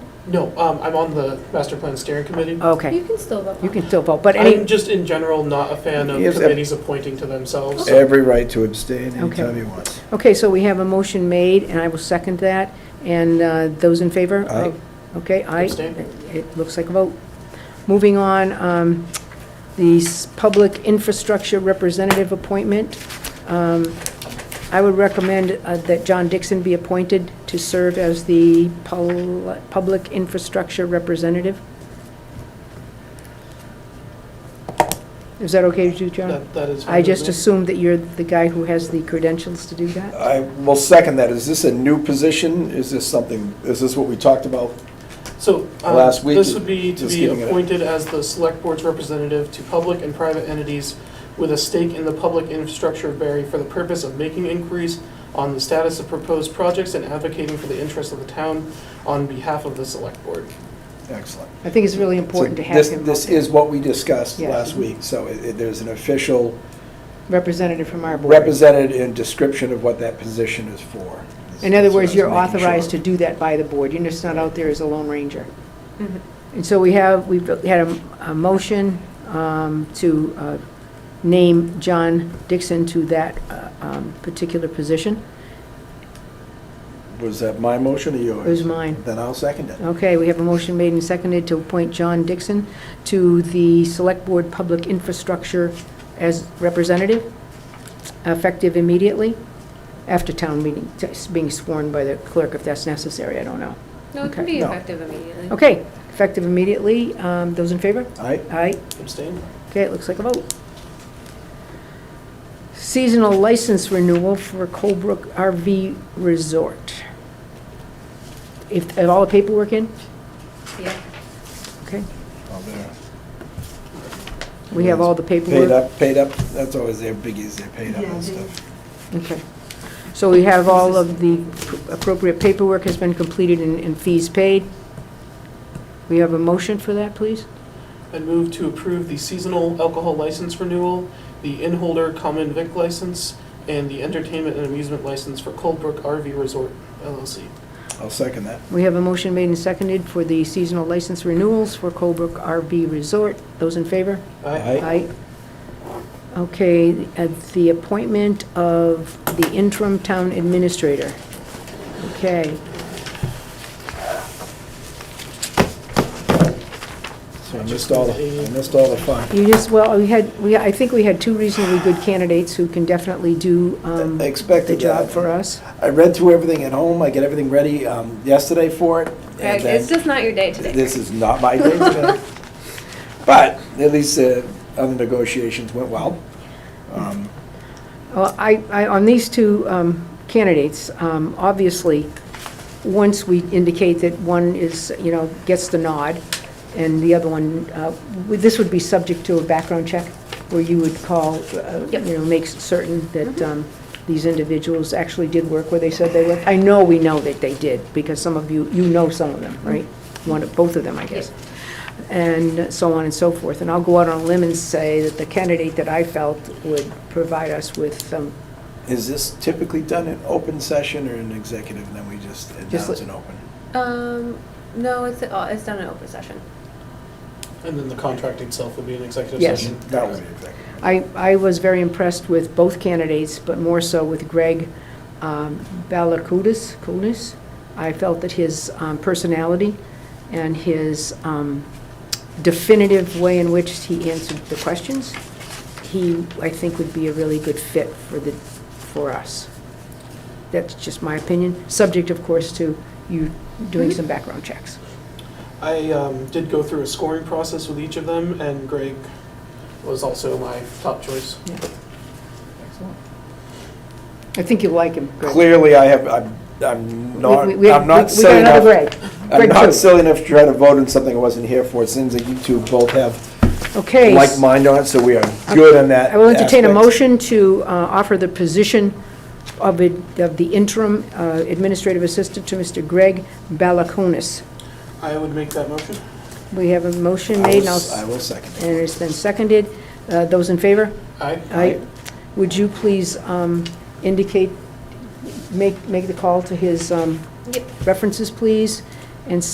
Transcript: No, um, I'm on the master plan steering committee. Okay, You can still vote. you can still vote, Oh, but I'm any, just in general not a fan of Yes, uh, committees appointing to themselves. Every right to abstain Okay. anytime he wants. okay, so we have a motion made, and I will second that, and uh, those in favor? Aye. of- Okay, aye. Abstain. It- It looks like a vote. Moving on, um, the s- Public Infrastructure Representative appointment. Um, I would recommend uh, that John Dixon be appointed to serve as the pol- Public Infrastructure Representative. Is that okay with you, John? That, that is. fine I with just me. assumed that you're the guy who has the credentials to do that. I will second that. Is this a new position? Is this something, is this what we talked about? So, um, Last week, this would be to just be giving it a- appointed as the select board's representative to public and private entities with a stake in the public infrastructure of Barry for the purpose of making inquiries on the status of proposed projects and advocating for the interests of the town on behalf of the select board. Excellent. I think it's really important to So have this- him up This there. is what we discussed Yeah. last week, so it- it- there's an official representative from our board. represented in description of what that position is for. In other words, So I you're was making sure. authorized to do that by the board, you're just not out there as a lone ranger. And so we have, we've had a, a motion um, to uh, name John Dixon to that uh, um, particular position. Was that my motion or yours? It was mine. Oh. Then I'll second it. Okay, we have a motion made and seconded to appoint John Dixon to the Select Board Public Infrastructure as representative, effective immediately, after town meeting, just being sworn by the clerk if that's necessary, I don't know. No, it can Okay. be No. effective immediately. Okay, effective immediately, um, those in favor? Aye? Aye, Abstain? okay, it looks like a vote. Seasonal license renewal for Colebrook RV Resort. If, have all the paperwork in? Yeah. Okay, Oh, there. we have all the paperwork. Paid up, paid up, that's always their biggies, they're paid up Yeah, and they- stuff. Okay. So we have all of the appropriate paperwork has been completed and and fees paid. We have a motion for that, please? And move to approve the seasonal alcohol license renewal, the in-holder common vic license, and the entertainment and amusement license for Coldbrook RV Resort LLC. I'll second that. We have a motion made and seconded for the seasonal license renewals for Colebrook RV Resort. Those in favor? Aye. Aye? Okay, at the appointment of the interim town administrator. Okay, So I missed all, the I missed all the fun. you just, well, we had, we, I think we had two reasonably good candidates who can definitely do um, I the expected job that. for us. I read through everything at home, I get everything ready um, yesterday for it. and Greg, then- it's just not your day today. This is not my day today. But at least uh, other negotiations went well. Um, Well, I, I, on these two um, candidates, um, obviously, once we indicate that one is, you know, gets the nod, and the other one, uh, would- this would be subject to a background check, where you would call, uh, Yep. you know, make certain that um, these individuals actually did work where they said they worked. I know we know that they did, because some of you, you know some of them, right? One, of both of them, I guess and so on and so forth. And I'll go out on a limb and say that the candidate that I felt would provide us with some, Is this typically done in open session or in executive, and then we just Just announce let- an open? Um, no, it's, uh, it's done in open session. And then the contract itself would be an executive Yes. session. That would be executive. I, I was very impressed with both candidates, but more so with Greg um, Balakudis, Kunis. I felt that his um, personality and his um, definitive way in which he answered the questions, he, I think, would be a really good fit for the, for us. That's just my opinion, subject, of course, to you doing some background checks. I um, did go through a scoring process with each of them, and Greg was also my top choice. I think you'll like him, Greg. Clearly, I have, I'm- I'm not, We- we- we- I'm not We got silly another enough. Greg. I'm Greg not too. silly enough to try to vote on something I wasn't here for. It seems that you two both have Okay. like mind on it, so we are good on that. I will entertain a aspect. motion to uh, offer the position of it- of the interim uh, administrative assistant to Mr. Greg Balakonis. I would make that motion. We have a I motion will made, and I'll s- s- I will second it. and it's been seconded. Uh, Those in favor? Aye. Aye. Would you please um, indicate, make, make the call to his um, Yep. references, please, and